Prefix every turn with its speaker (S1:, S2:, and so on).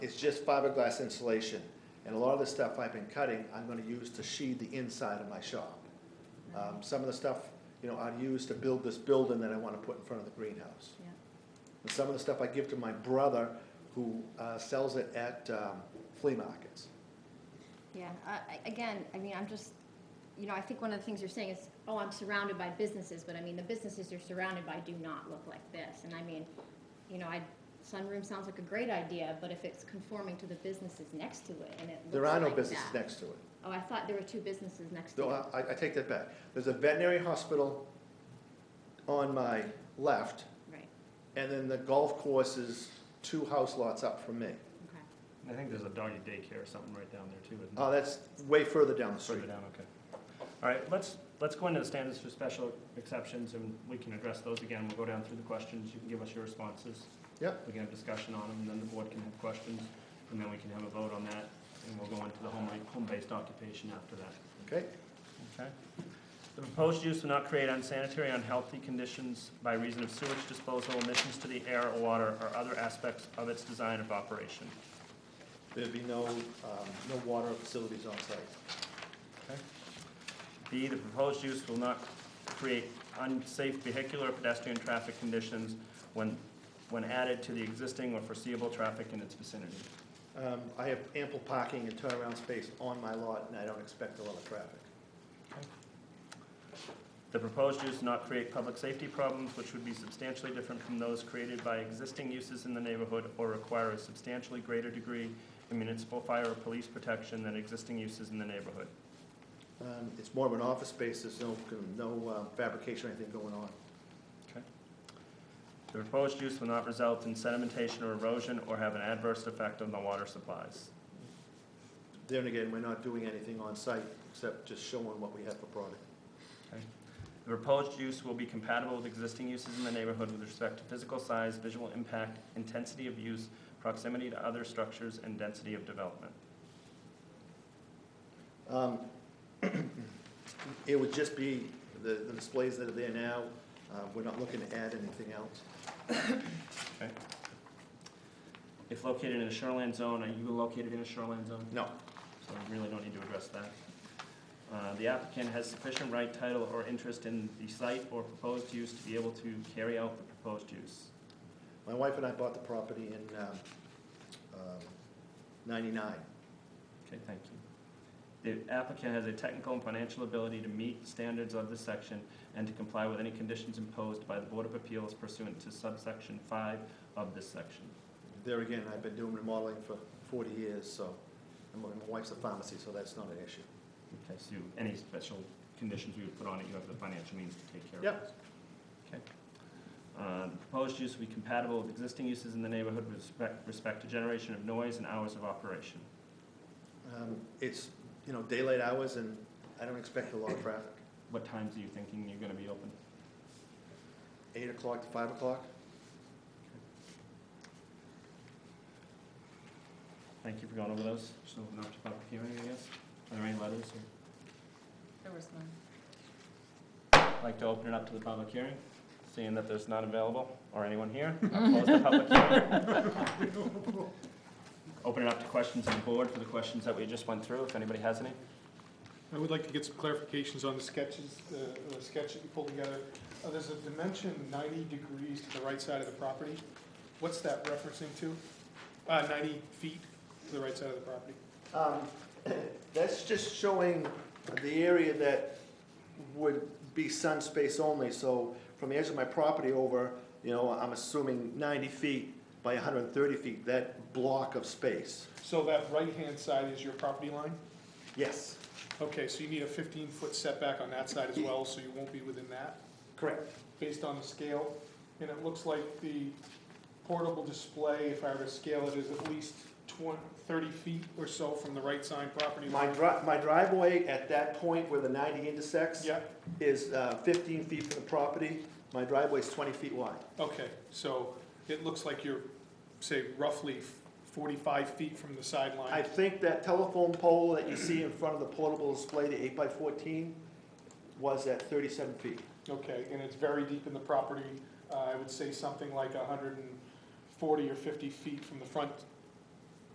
S1: it's just fiberglass insulation. And a lot of the stuff I've been cutting, I'm gonna use to sheathe the inside of my shop. Um, some of the stuff, you know, I'd use to build this building that I wanna put in front of the greenhouse.
S2: Yeah.
S1: And some of the stuff I give to my brother, who, uh, sells it at, um, flea markets.
S2: Yeah, I- I- again, I mean, I'm just, you know, I think one of the things you're saying is, oh, I'm surrounded by businesses, but I mean, the businesses you're surrounded by do not look like this. And I mean, you know, I, sunroom sounds like a great idea, but if it's conforming to the businesses next to it and it looks
S1: There are no
S2: like
S1: businesses
S2: that-
S1: next to it.
S2: Oh, I thought there were two businesses next to
S1: Though uh,
S2: it.
S1: I, I take that back. There's a veterinary hospital on my left,
S2: Right,
S1: and then the golf course is two house lots up from me.
S2: okay.
S3: I think there's a doggy daycare or something right down there too, isn't
S1: Oh,
S3: there?
S1: that's way further down the
S3: Further
S1: street.
S3: down, okay. All right, let's, let's go into the standards for special exceptions and we can address those again. We'll go down through the questions. You can give us your responses.
S1: Yep.
S3: We can have discussion on them, and then the board can have questions, and then we can have a vote on that. And we'll go into the home, home-based occupation after that.
S1: Okay,
S3: Okay. The proposed use will not create unsanitary, unhealthy conditions by reason of sewage disposal, emissions to the air, water, or other aspects of its design of operation.
S1: there'd be no, um, no water facilities on site.
S3: Okay. B, the proposed use will not create unsafe vehicular or pedestrian traffic conditions when, when added to the existing or foreseeable traffic in its vicinity.
S1: Um, I have ample parking and turnaround space on my lot, and I don't expect a lot of traffic.
S3: The proposed use will not create public safety problems which would be substantially different from those created by existing uses in the neighborhood or require a substantially greater degree of municipal fire or police protection than existing uses in the neighborhood.
S1: Um, It's more of an office space, there's no, no uh, fabrication or anything going on.
S3: The proposed use will not result in sedimentation or erosion or have an adverse effect on the water supplies.
S1: Then again, we're not doing anything on site except just showing what we have for product.
S3: The proposed use will be compatible with existing uses in the neighborhood with respect to physical size, visual impact, intensity of use, proximity to other structures, and density of development.
S1: Um, It would just be the, the displays that are there now, uh, we're not looking to add anything else.
S3: If located in a shoreline zone, are you located in a shoreline zone?
S1: No,
S3: So we really don't need to address that. Uh, The applicant has sufficient right, title, or interest in the site or proposed use to be able to carry out the proposed use.
S1: my wife and I bought the property in um, um, ninety-nine.
S3: Okay, thank you. The applicant has a technical and financial ability to meet standards of this section and to comply with any conditions imposed by the Board of Appeals pursuant to subsection five of this section.
S1: There again, I've been doing remodeling for forty years, so, and my my wife's a pharmacy, so that's not an issue.
S3: Okay, so you- any special conditions we would put on it, you have the financial means to take care of.
S1: Yep.
S3: those. Okay. Uh, the Proposed use will be compatible with existing uses in the neighborhood with respect, respect to generation of noise and hours of operation.
S1: Um, It's, you know, daylight hours, and I don't expect a lot of traffic,
S3: What times are you thinking you're gonna be open?
S1: eight o'clock to five o'clock.
S3: Thank you for going over those. Just open up to public hearing, I guess. Are there any letters here?
S4: There was none.
S3: Like to open it up to the public hearing, seeing that there's none available, or anyone here, I'll close the public hearing. Open it up to questions on the board for the questions that we just went through, if anybody has any.
S5: I would like to get some clarifications on the sketches, the the sketch that you pulled together. Uh, There's a dimension 90 degrees to the right side of the property. What's that referencing to? Uh, 90 feet to the right side of the property.
S1: Um, That's just showing the area that would be sun space only, so from the edge of my property over, you know, I'm assuming ninety feet by hundred and thirty feet, that block of space.
S5: So that right-hand side is your property line?
S1: Yes,
S5: Okay, so you need a 15-foot setback on that side as well, so you won't be within that,
S1: correct.
S5: based on the scale. And it looks like the portable display, if I were to scale it, is at least 20, 30 feet or so from the right side property
S1: My
S5: line.
S1: dri, my driveway at that point where the ninety intersects
S5: Yep.
S1: is uh, fifteen feet from the property. My driveway's twenty feet wide.
S5: Okay, so it looks like you're, say, roughly forty-five feet from the
S1: I
S5: sideline.
S1: think that telephone pole that you see in front of the portable display, the eight by fourteen, was at thirty-seven feet.
S5: Okay, and it's very deep in the property. Uh, I would say something like hundred and forty or fifty feet from the front